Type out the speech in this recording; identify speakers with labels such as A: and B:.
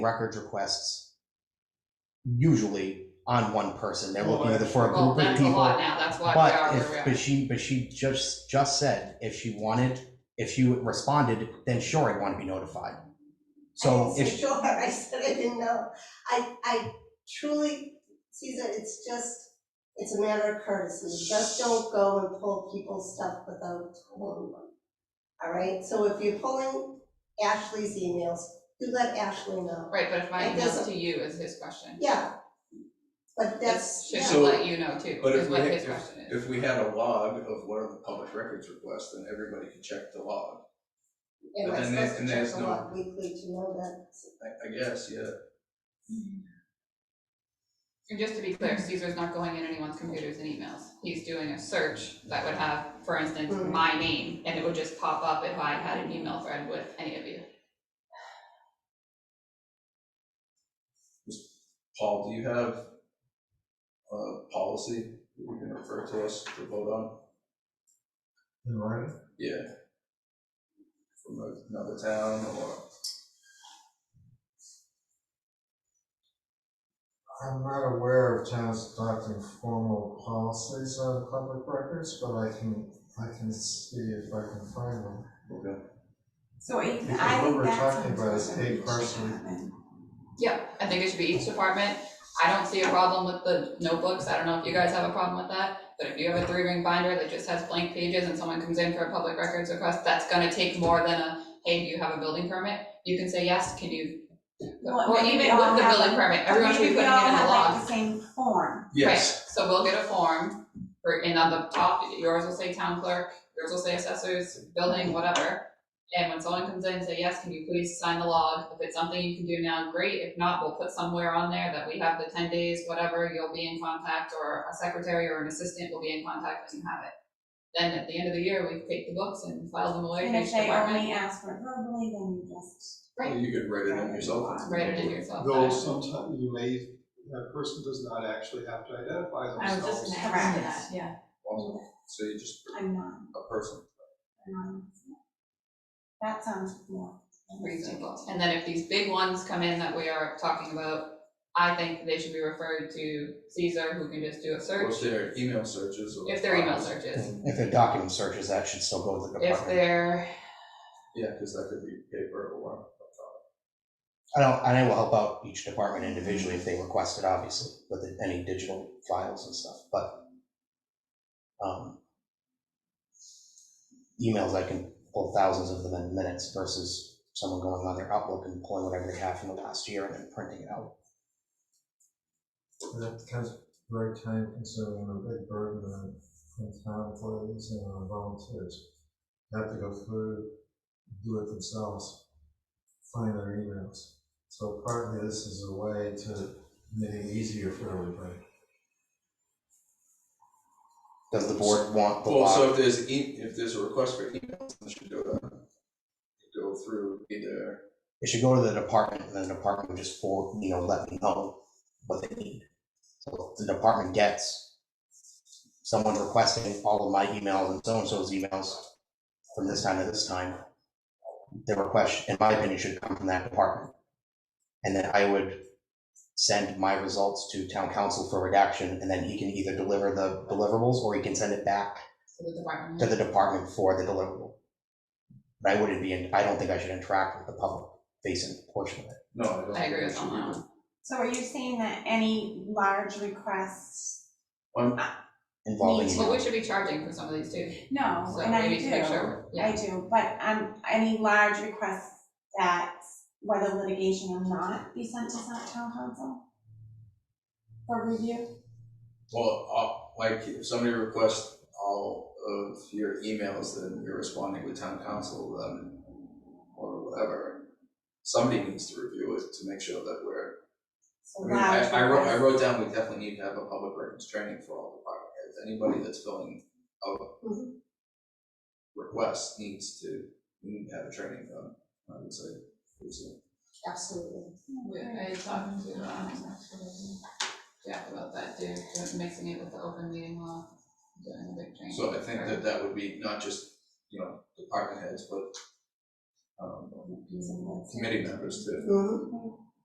A: records requests usually on one person. They're
B: Well,
A: looking either for a
C: Well,
A: group of
C: that's a lot
A: people.
C: now, that's why we are
A: But if,
C: where we
A: but
C: are.
A: she, but she just, just said if she wanted, if she responded, then sure, I'd want to be notified. So
D: I didn't say
A: if,
D: sure, I said I didn't know. I, I truly, Caesar, it's just, it's a matter of courtesy. Just don't go and pull people's stuff without telling them. All right, so if you're pulling Ashley's emails, do let Ashley know.
C: Right, but if my
D: It
C: email
D: doesn't-
C: to you is his question.
D: Yeah, but that's,
C: It
D: yeah,
C: should
B: So-
C: let you know too,
B: But
C: is
B: if we,
C: what
B: had-
C: his
B: if,
C: question is.
B: if we had a log of what are the public records requests, then everybody could check the log,
D: am
B: but
D: I
B: then there-
D: supposed to
B: and
D: check
B: there's
D: the
B: no-
D: log weekly to know that?
B: I, I guess, yeah.
C: And just to be clear, Caesar's not going in anyone's computers and emails. He's doing a search that would have, for instance,
D: Mhm.
C: my name, and it would just pop up if I had an email thread with any of you.
B: Paul, do you have a policy that you can refer to us to vote on?
E: In writing?
B: Yeah. From another town or?
E: I'm not aware of towns adopting formal policies on public records, but I can, I can see if I can find them.
B: Okay.
F: So I, I think
E: Because
F: that's.
E: what we're talking
F: something
E: about is
F: special
E: eight
F: each
E: person.
F: department.
C: Yeah, I think it should be each department. I don't see a problem with the notebooks. I don't know if you guys have a problem with that. But if you have a three ring binder that just has blank pages and someone comes in for a public records request, that's gonna take more than a, hey, do you have a building permit? You can say yes, can you?
F: Well,
C: Or
F: maybe
C: even
F: we all
C: with the
F: have-
C: building permit, everyone should be
F: Maybe
C: putting it in the
F: We all have
C: log.
F: like the same form.
B: Yes,
C: Right, so we'll get a form, for, and on the top, yours will say town clerk, yours will say assessors, building, whatever. And when someone comes in and say, yes, can you please sign the log, if it's something you can do now, great, if not, we'll put somewhere on there that we have the ten days, whatever, you'll be in contact, or a secretary or an assistant will be in contact and have it. Then at the end of the year, we take the books and file them away,
F: And
C: each
F: if they only
C: department,
F: ask for it verbally, then you just.
C: Right.
B: you could write it in yourself.
C: write it in yourself.
G: Though sometimes you may, that person does not actually have to identify
H: I was
G: themselves.
H: just gonna
F: Correct.
H: ask that, yeah.
B: Awesome. So you just,
F: I'm not,
B: a person.
F: I'm not. That sounds more.
C: reasonable. And then if these big ones come in that we are talking about, I think they should be referred to Caesar, who can just do a
B: Or
C: search,
B: if they're email searches or.
C: if they're email searches.
A: if they're document searches, that should still go to the
C: If
A: department.
C: they're,
B: Yeah, because that could be paper or.
A: I don't, and I will help out each department individually if they request it, obviously, with any digital files and stuff, but um, emails, I can pull thousands of them in minutes versus someone going on their Outlook and pulling whatever they have from the last year and then printing it out.
E: That becomes very time consuming and a big burden on, on town employees and on volunteers. Have to go through, do it themselves, find their emails. So partly this is a way to make it easier for everybody.
A: Does the board want the
B: Well, so
A: log?
B: if there's, e- if there's a request for emails, then you should go to, go through either,
A: It should go to the department and then the department would just for, you know, let me know what they need. So if the department gets someone requesting all of my emails and so-and-so's emails from this time to this time, the request, in my opinion, should come from that department. And then I would send my results to town council for redaction and then he can either deliver the deliverables or he can send it back
C: so the department.
A: to the department for the deliverable. But I wouldn't be, in I don't think I should interact with the public facing portion of it.
B: no, I don't.
C: I agree
B: think
C: with
B: it should be
C: on that
B: the-
F: So are you saying that any large requests,
A: involving
F: Me too.
C: But
A: you.
C: we should be charging for some of these too,
F: no,
C: so
F: and I do.
C: we need to make sure,
F: I
C: yeah,
F: do, but um, any large requests that, whether litigation or not, be sent to some town council? For review?
B: Well, I'll- like, if somebody requests all of your emails, then you're responding with town council, then, or whatever. Somebody needs to review it to make sure that we're,
F: So
B: I mean,
F: large
B: I,
F: requests.
B: I wrote, I wrote down, we definitely need to have a public records training for all department heads, anybody that's filling out requests needs to, we need to have a training done, I would say, pretty soon.
D: Absolutely.
C: We- I talked to, um, Jack about that too, mixing it with the open meeting law, doing a big change.
B: So I think that that would be not just, you know, department heads, but um, committee members too.
D: Mhm.